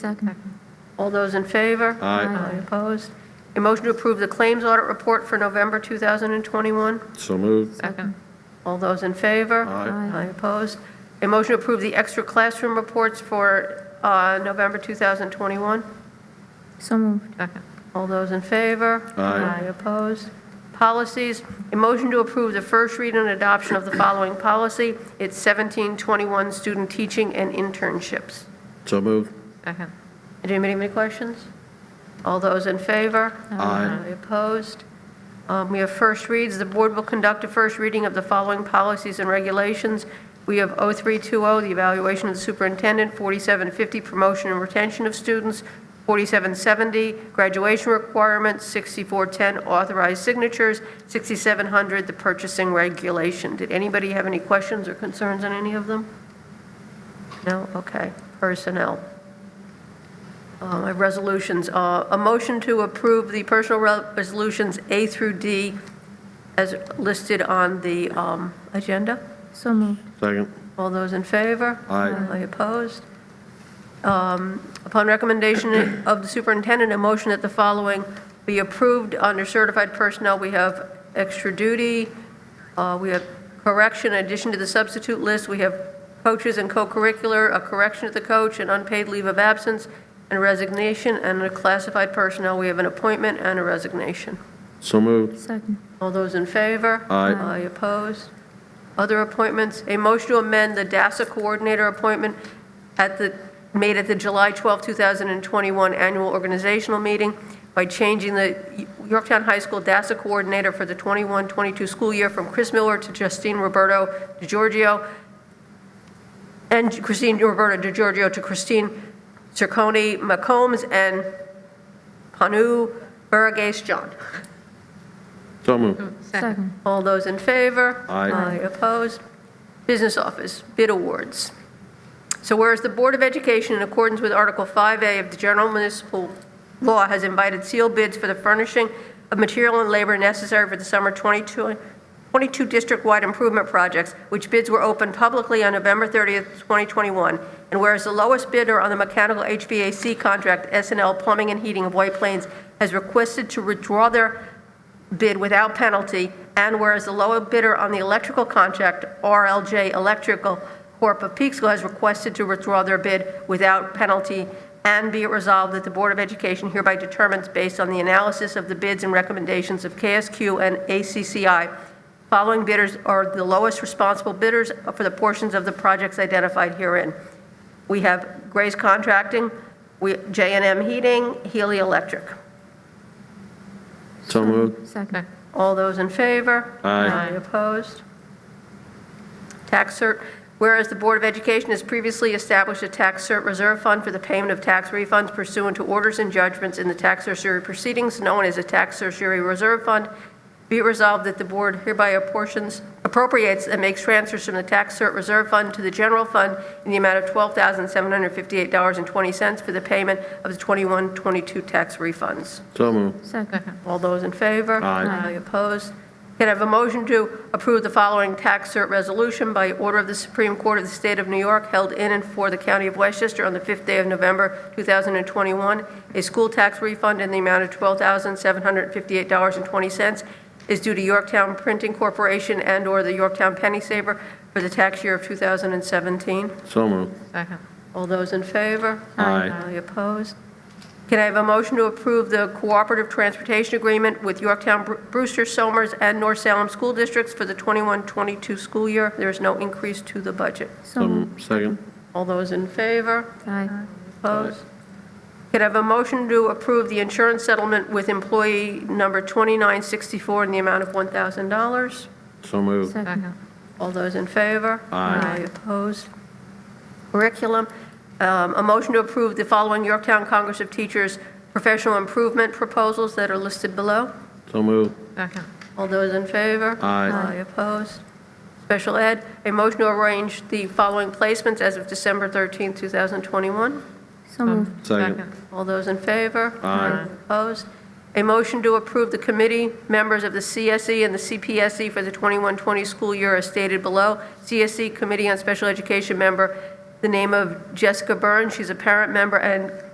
Second. All those in favor? Aye. Aye opposed? A motion to approve the claims audit report for November 2021? So moved. Second. All those in favor? Aye. Aye opposed? A motion to approve the extra classroom reports for uh, November 2021? So moved. Second. All those in favor? Aye. opposed? Policies, a motion to approve the first read and adoption of the following policy. It's 1721, student teaching and internships. So moved. Second. Did anybody have any questions? All those in favor? Aye. Opposed? Um, We have first reads. The board will conduct a first reading of the following policies and regulations. We have 0320, oh, the evaluation of the superintendent, 4750, promotion and retention of students, 4770, graduation requirements, 6410, authorized signatures, 6700, the purchasing regulation. Did anybody have any questions or concerns on any of them? No? Okay. Personnel. Um, I have resolutions. Uh, A motion to approve the personal resolutions A through D as listed on the um, agenda. So moved. Second. All those in favor? Aye. Aye opposed? Um, Upon recommendation of the superintendent, a motion that the following be approved under certified personnel. We have extra duty, uh, we have correction, in addition to the substitute list, we have coaches and co-curricular, a correction to the coach, an unpaid leave of absence, and resignation, and a classified personnel, we have an appointment and a resignation. So moved. Second. All those in favor? Aye. Aye opposed? Other appointments, a motion to amend the DASSA coordinator appointment at the, made at the July 12, 2021 annual organizational meeting by changing the Yorktown High School DASSA coordinator for the 21-22 school year from Chris Miller to Justine Roberto DiGiorgio, and Christine Roberto DiGiorgio to Christine Cerconi McCombs and Panu Burgess John. So moved. Second. All those in favor? Aye. opposed? Business Office, bid awards. So whereas the Board of Education, in accordance with Article 5A of the General Municipal Law, has invited sealed bids for the furnishing of material and labor necessary for the summer 22 22 district-wide improvement projects, which bids were opened publicly on November 30th, 2021. And whereas the lowest bidder on the mechanical HVAC contract, SNL Plumbing and Heating of White Plains, has requested to withdraw their bid without penalty, and whereas the lower bidder on the electrical contract, RLJ Electrical Corp. of Peekskill, has requested to withdraw their bid without penalty, and be it resolved that the Board of Education hereby determines, based on the analysis of the bids and recommendations of KSQ and ACCI, following bidders are the lowest responsible bidders for the portions of the projects identified herein. We have Gray's Contracting, j and M Heating, Healy Electric. So moved. Second. All those in favor? Aye. opposed? Tax cert, whereas the Board of Education has previously established a tax cert reserve fund for the payment of tax refunds pursuant to orders and judgments in the tax certiorari proceedings known as a tax certiorari reserve fund, be it resolved that the board hereby apportions, appropriates and makes transfers from the tax cert reserve fund to the general fund in the amount of $12,758.20 for the payment of the 21-22 tax refunds. So moved. Second. All those in favor? Aye. opposed? Can I have a motion to approve the following tax cert resolution by order of the Supreme Court of the State of New York held in and for the County of Westchester on the 5th day of November 2021? A school tax refund in the amount of $12,758.20 is due to Yorktown Printing Corporation and/or the Yorktown Penny Saver for the tax year of 2017. So moved. Second. All those in favor? Aye. Aye opposed? Can I have a motion to approve the cooperative transportation agreement with Yorktown Bru- Brewster, Somers, and North Salem School Districts for the 21-22 school year? There is no increase to the budget. So So moved. moved. Second. All those in favor? Aye. Opposed? Could I have a motion to approve the insurance settlement with employee number 2964 in the amount of $1,000? So moved. Second. All those in favor? Aye. opposed? Curriculum, um, a motion to approve the following Yorktown Congress of Teachers professional improvement proposals that are listed below. So moved. Second. All those in favor? Aye. opposed? Special ed, a motion to arrange the following placements as of December 13, 2021. So moved. Second. All those in favor? Aye. Opposed? A motion to approve the committee members of the CSE and the CPSE E for the 21-20 school year as stated below. E CSE Committee on Special Education member, the name of Jessica Byrne, she's a parent member, and